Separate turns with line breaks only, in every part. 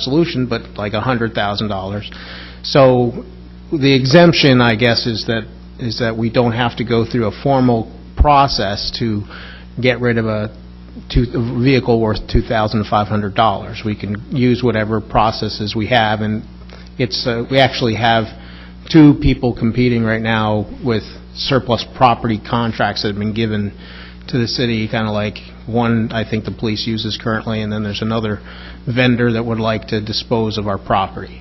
resolution, but like $100,000. So the exemption, I guess, is that, is that we don't have to go through a formal process to get rid of a two- a vehicle worth $2,500. We can use whatever processes we have, and it's, uh, we actually have two people competing right now with surplus property contracts that have been given to the city, kind of like, one, I think the police uses currently, and then there's another vendor that would like to dispose of our property.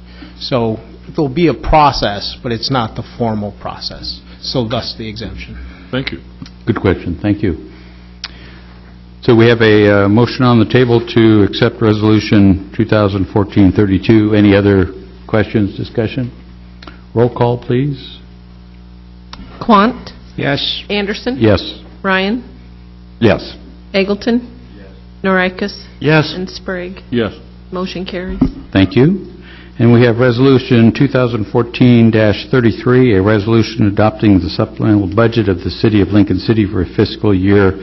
So there'll be a process, but it's not the formal process, so thus the exemption.
Thank you.
Good question, thank you. So we have a uh, motion on the table to accept Resolution 2014-32. Any other questions, discussion? Roll call, please.
Quant,
Yes.
Anderson.
Yes.
Ryan,
Yes.
Eggleton. Norikis,
Yes.
and Sprague.
Yes.
Motion carries.
Thank you. And we have Resolution 2014-33, a resolution adopting the supplemental budget of the City of Lincoln City for fiscal year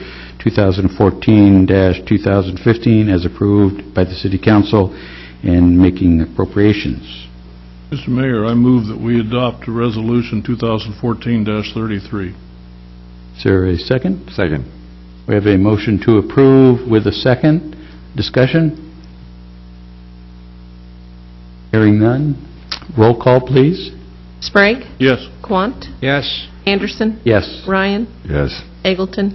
2014-2015 as approved by the City Council and making appropriations.
Mr. Mayor, I move that we adopt Resolution 2014-33.
Is there a second?
Second.
We have a motion to approve with a second. Discussion? Hearing none. Roll call, please.
Sprague,
Yes.
Quant,
Yes.
Anderson,
Yes.
Ryan,
Yes.
Eggleton.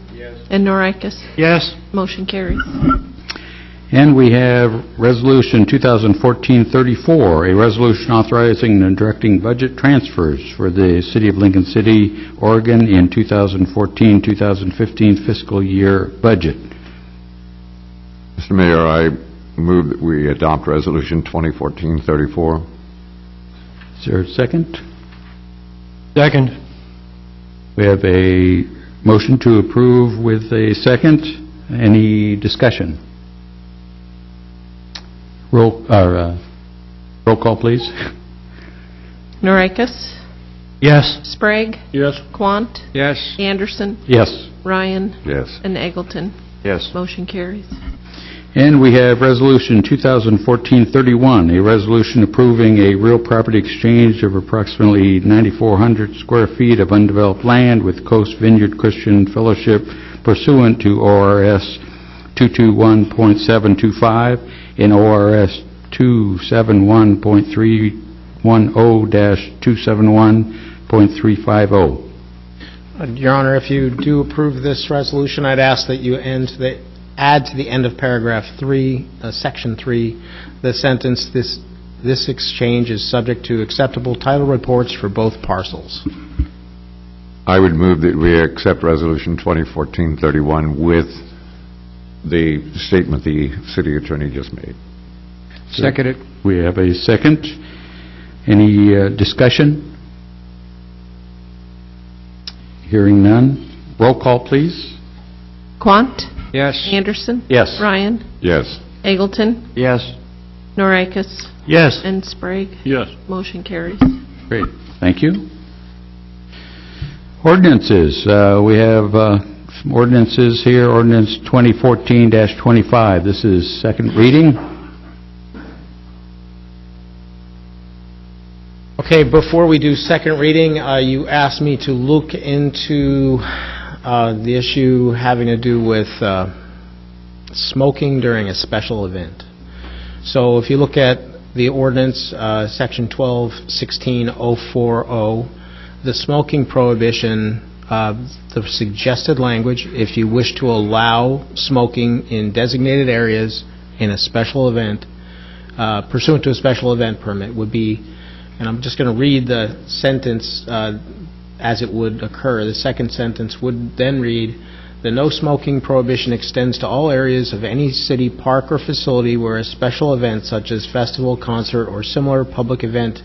And Norikis.
Yes.
Motion carries.
And we have Resolution 2014-34, a resolution authorizing and directing budget transfers for the City of Lincoln City, Oregon in 2014-2015 fiscal year budget.
Mr. Mayor, I move that we adopt Resolution 2014-34.
Is there a second?
Second.
We have a motion to approve with a second. Any discussion? Roll, or, uh, roll call, please.
Norikis,
Yes.
Sprague,
Yes.
Quant,
Yes.
Anderson,
Yes.
Ryan,
Yes.
and Eggleton.
Yes.
Motion carries.
And we have Resolution 2014-31, a resolution approving a real property exchange of approximately 9,400 square feet of undeveloped land with Coast Vineyard Christian Fellowship pursuant to ORS 221.725 and ORS 271.310-271.350.
Uh, Your Honor, if you do approve this resolution, I'd ask that you end, that add to the end of paragraph three, uh, section three, the sentence, "This this exchange is subject to acceptable title reports for both parcels."
I would move that we accept Resolution 2014-31 with the statement the city attorney just made.
Seconded. We have a second. Any uh, discussion? Hearing none. Roll call, please.
Quant,
Yes.
Anderson,
Yes.
Ryan,
Yes.
Eggleton,
Yes.
Norikis,
Yes.
and Sprague.
Yes.
Motion carries.
Great, thank you. Ordinances, Uh, we have uh, some ordinances here, ordinance 2014-25. This is second reading.
Okay, before we do second reading, uh, you asked me to look into uh, the issue having to do with uh, smoking during a special event. So if you look at the ordinance, uh, Section 1216040, oh, the smoking prohibition, uh, the suggested language, if you wish to allow smoking in designated areas in a special event uh, pursuant to a special event permit would be, and I'm just going to read the sentence uh, as it would occur. The second sentence would then read, "The no smoking prohibition extends to all areas of any city park or facility where a special event such as festival, concert, or similar public event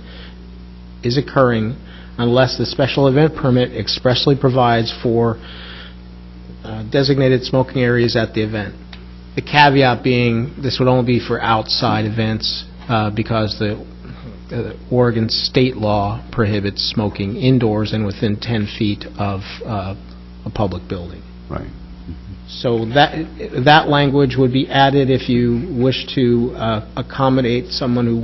is occurring unless the special event permit expressly provides for uh, designated smoking areas at the event." The caveat being, this would only be for outside events, uh, because the uh, Oregon state law prohibits smoking indoors and within 10 feet of uh, a public building.
Right.
So that, that language would be added if you wish to uh, accommodate someone who